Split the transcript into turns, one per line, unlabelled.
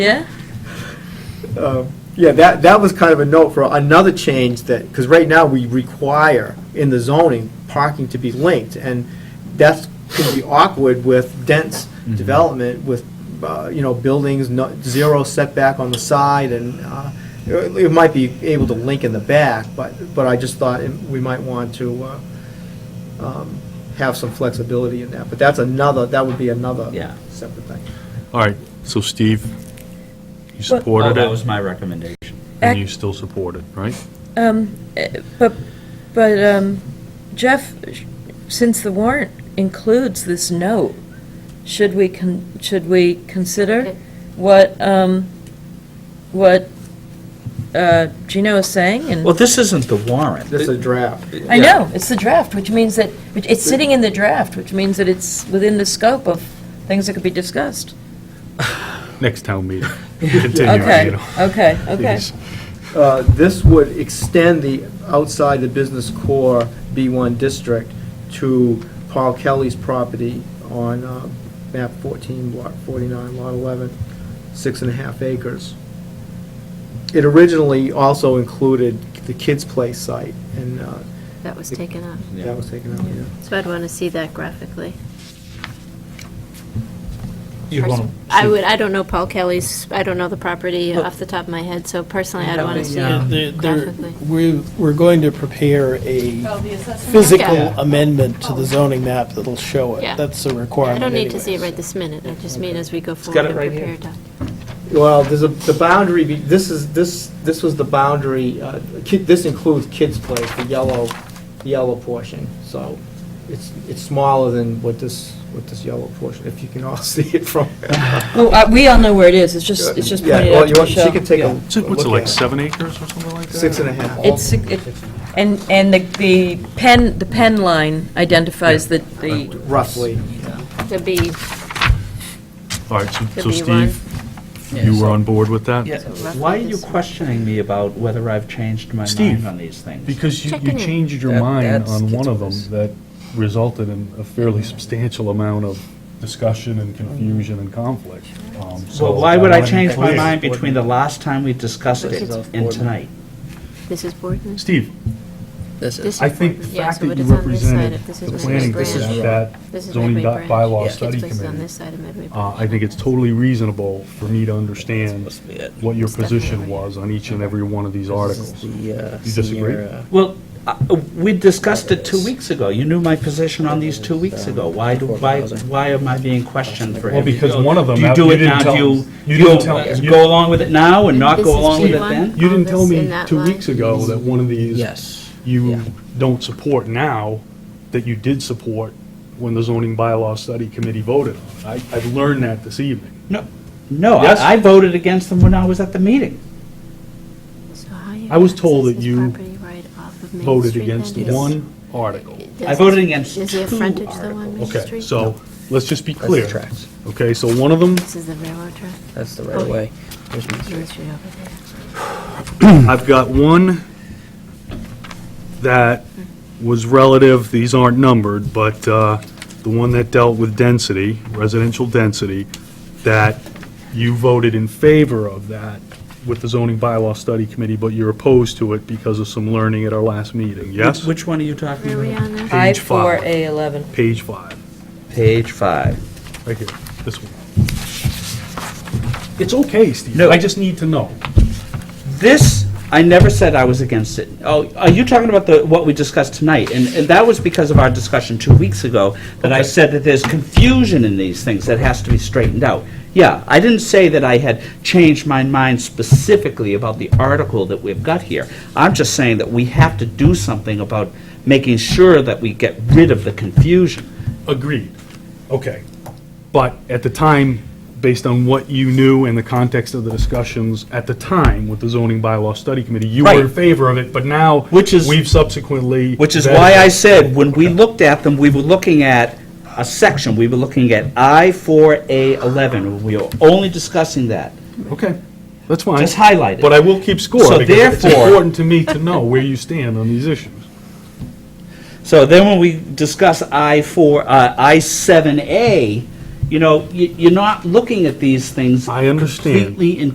Yeah?
Uh, Yeah, that, that was kind of a note for another change that, because right now we require in the zoning parking to be linked, and that's going to be awkward with dense development with, uh, you know, buildings, no- zero setback on the side, and uh, it it might be able to link in the back, but, but I just thought we might want to uh, um, have some flexibility in that, but that's another, that would be another
Yeah.
separate thing.
All right, so Steve, you
Well-
Oh,
supported
that
it,
was my recommendation.
and you still support it, right?
Um, eh, but, but, um, Jeff, sh- since the warrant includes this note, should we con, should we consider what, um, what, uh, Gino is saying
Well,
and?
this isn't the warrant.
This is a draft.
I know, it's the draft, which means that, which- it's sitting in the draft, which means that it's within the scope of things that could be discussed.
Next town meeting. Continue, you
Okay,
know.
okay, okay.
Please.
Uh, This would extend the outside the business core B1 district to Paul Kelly's property on uh, map 14, lot 49, lot 11, six and a half acres. It originally also included the Kids Play site, and uh,
That was taken off.
that was taken out, yeah.
So I'd want to see that graphically.
You'd want
I would, I don't know Paul Kelly's, I don't know the property off the top of my head, so personally, I'd want to see it. Graphically.
We're, we're going to prepare a physical
Yeah.
amendment to the zoning map that'll show it.
Yeah.
That's a
I
requirement
don't need to see it
anyways.
right this minute, I just mean as we go forward and prepare it.
Well, there's a, the boundary, be- this is, this, this was the boundary, uh, kid, this includes kids' place, the yellow, the yellow portion, so it's, it's smaller than what this, what this yellow portion, if you can all see it from.
Well, uh, we all know where it is, it's just, it's just
Yeah,
pointed
well,
out
you
to
want-
Michelle.
She can take a a
Yeah.
look
So What's it, like
at it.
seven acres or something like that?
Six and a half.
It's, it- and, and the, the pen, the pen line identifies the, the,
Roughly,
To be
All right, so-
Could
so
be
Steve, you were on board with that?
Why are you questioning me about whether I've changed my mind
Steve,
on these things?
Because you, you
Checking in.
changed your
That-
mind
that's
on one of them
ridiculous.
that resulted in a fairly substantial amount of discussion and confusion and conflict. Um, so
Well, why would I
wanna be
change my
clear.
mind between the last time we discussed it and tonight?
Mrs. Borden?
Steve,
This
This
I think the
Borden, yeah,
fact
so
that
it
you
is on this side
represented
of, this
the
is Waverly
planning
Branch.
board at that
This is
zoning
Waverly
by-
Branch.
bylaw
Kids'
study
place is on
committee,
this side of Medway
Uh,
Branch.
I think it's totally reasonable for me to understand
Supposed to be it.
what your
It's definitely
position
right.
was on each and every one of these
is
articles.
the, uh,
You disagree?
senior, uh,
Well, uh, we discussed it two weeks ago. You knew my position on these two weeks ago. Why do, why, why am I being questioned for
Well,
every?
because one of them,
Do you
uh,
do
you
it
didn't
now?
tell
Do you,
us. You
you
didn't tell us. You-
go along with it now and not
This
go
is
along with it
G1.
then?
You didn't tell
All this
me
in that
two
line?
weeks ago that one of these
uh, Yes.
you
Yeah.
don't support now, that you did support when the zoning bylaw study committee voted on it. I- I've learned that this evening.
No, no,
Yes.
I I voted against them when I was at the meeting.
So how you
I was
access
told that
this
you
property right off of Main
Voted
Street
against
then is-
one article.
does-
I voted against
Is the
two
frontage though on Main Street?
Okay, so let's just be
That's the
clear.
tracks.
Okay, so one of them,
This is the railroad track,
That's the right way. There's my
Main
street.
Street over there.
I've got one that was relative, these aren't numbered, but uh, the one that dealt with density, residential density, that you voted in favor of that with the zoning bylaw study committee, but you're opposed to it because of some learning at our last meeting, yes?
Which one are you talking
Where are we
about?
on there?
I
Page
four
five.
A eleven.
Page five,
Page five.
right here, this one. It's okay, Steve.
No.
I just need to know.
This, I never said I was against it. Oh, are you talking about the, what we discussed tonight? And, and that was because of our discussion two weeks ago, that I said that there's confusion in these things that has to be straightened out. Yeah, I didn't say that I had changed my mind specifically about the article that we've got here. I'm just saying that we have to do something about making sure that we get rid of the confusion.
Agreed. Okay. But at the time, based on what you knew and the context of the discussions at the time with the zoning bylaw study committee, you were in
Right.
favor of it, but now.
Which is-
We've subsequently.
Which is
vetted
why I
it.
said, when we looked at them, we were looking at a section, we were looking at I-4A11, we were only discussing that.
Okay, that's fine.
Just highlight it.
But I will keep score.
So
because It's
therefore-
important to me to know where you stand on these issues.
So then when we discuss I-4, uh, I-7A,
you know, you- you're not looking at these things
I understand.
completely in